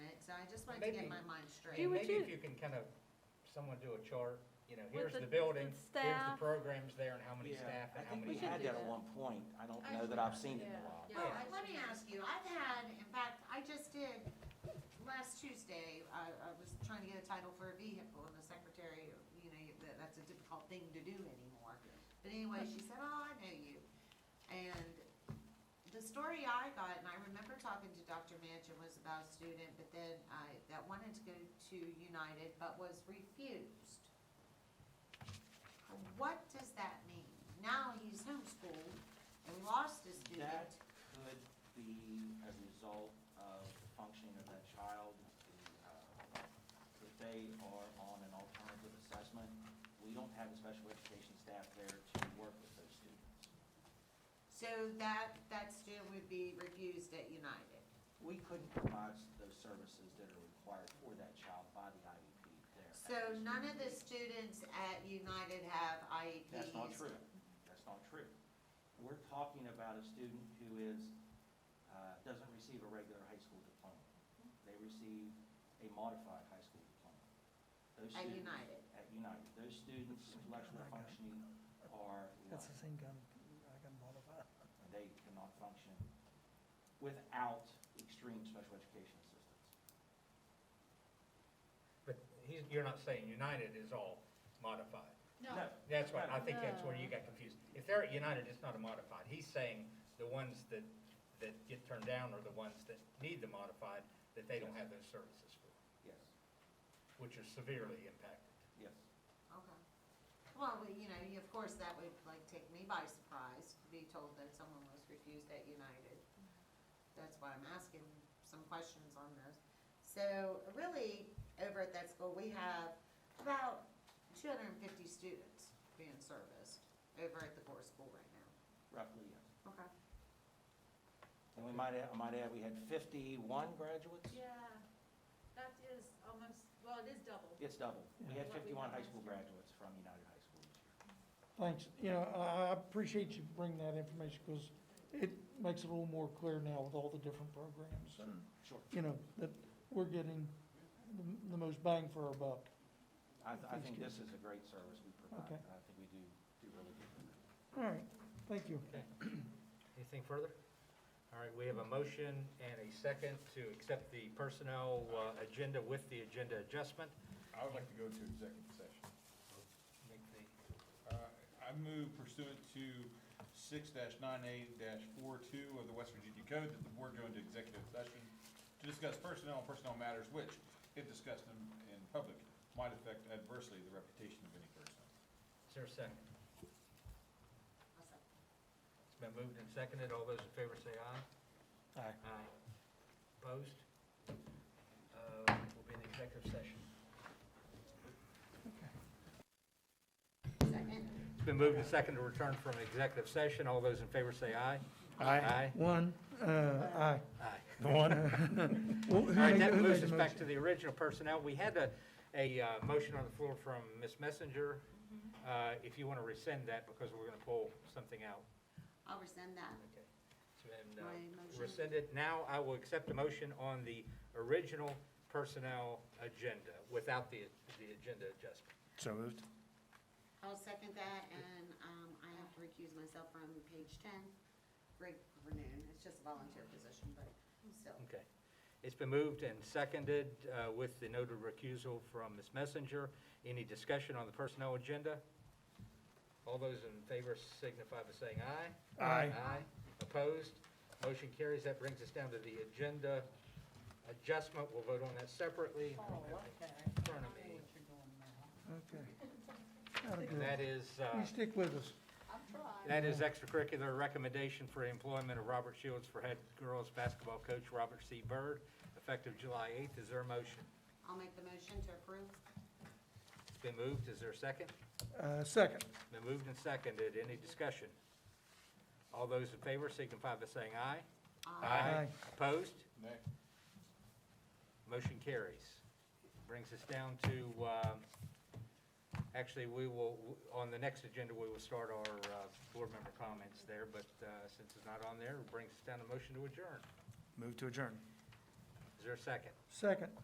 trying to maybe- get my mind straight. Do And what maybe you- if you can kind of, someone do a chart, you know, With here's the- the building, with here's the staff. programs there and how many Yeah, staff I and how think many. we should had do that that. at one point. I don't know that I've seen it in a Yeah. while. Yeah, I- let me ask you, I've had, in fact, I just did, last Tuesday, I, I was trying to get a title for a vehicle, and the secretary, you know, you- that, that's a difficult thing to do anymore. But anyway, she said, oh, I know you. And the story I got, and I remember talking to Dr. Manchin, was about a student, but then I, that wanted to go to United, but was refused. What does that mean? Now he's homeschooled and lost a student. That could be a result of the functioning of that child, the, uh, if they are on an alternative assessment. We don't have a special education staff there to work with those students. So that, that student would be refused at United. We couldn't provide those services that are required for that child by the IEP there. at So those none of the students. students at United have E IEPs? That's not true. That's not true. We're talking about a student who is, uh, doesn't receive a regular high school diploma. They receive a modified high school diploma. Those At students- United? At United. Those students' intellectual functioning are, That's the low. same gun I can modify. they cannot function without extreme special education assistance. But he's, you're not saying United is all modified. No, That's why, I No. think that's where you got confused. If they're at United, it's not a modified. He's saying the ones that, that get turned down are the ones that need the modified, that they don't have those services for, yes, which are severely impacted. yes. Okay. Well, we- you know, you- of course, that would like take me by surprise, to be told that someone was refused at United. That's why I'm asking some questions on this. So really, over at that school, we have about two hundred and fifty students being serviced over at the core school right now. Roughly, yes. Okay. And we might add, I might add, we had fifty-one graduates? Yeah, that is almost, well, it is double. It's double. We had Yeah. fifty-one high school graduates from United High School this year. Thanks, you know, I, I appreciate you bringing that information, because it makes it a little more clear now with all the different programs, and, Sure. you know, that we're getting the, the most bang for our buck. I, I think this is a great service we provide, Okay. and I think we do, do really good. with it. All right, thank you. Anything further? All right, we have a motion and a second to accept the personnel uh, agenda with the agenda adjustment. I would like to go to executive session. Make the- Uh, I move pursuant to six nine eight 42 of the West Virginia Code that the board go into executive session to discuss personnel and personnel matters which, if discussed in, in public, might affect adversely the reputation of any person. Is there a second? I'll second. It's been moved and seconded. All those in favor say aye. Aye. Aye. Opposed? Uh, We'll be in the executive session. Second. It's been moved and seconded to return from executive session. All those in favor say aye. Aye. One, uh, aye. Aye. Well, who All right, made- that who moves made us the back motion? to the original personnel. We had a, a uh, motion on the floor from Ms. Messenger. Uh, If you want to rescind that, because we're going to pull something out. I'll rescind that. Okay. So, and, uh, My motion. rescinded. Now I will accept a motion on the original personnel agenda without the, the agenda adjustment. So moved. I'll second that, and, um, I have to recuse myself from page ten. Greg Vernon, it's just a volunteer position, but still. Okay. It's been moved and seconded uh, with the noted recusal from Ms. Messenger. Any discussion on the personnel agenda? All those in favor signify by saying aye. Aye. Aye. Opposed? Motion carries. That brings us down to the agenda adjustment. We'll vote on that separately. Oh, I don't have it in front of me. Okay. That'll And do it. that is, uh, You stick with us. that is extracurricular recommendation for employment of Robert Shields for head girls basketball coach Robert C. Byrd, effective July 8th. Is there a motion? I'll make the motion to approve. It's been moved. Is there a second? Uh, second. Been moved and seconded. Any discussion? All those in favor signify by saying aye. Aye. Opposed? Next. Motion carries. Brings us down to, um, actually, we will, on the next agenda, we will start our uh, board member comments there, but uh, since it's not on there, it brings us down to motion to adjourn. Move to adjourn. Is there a second? Second.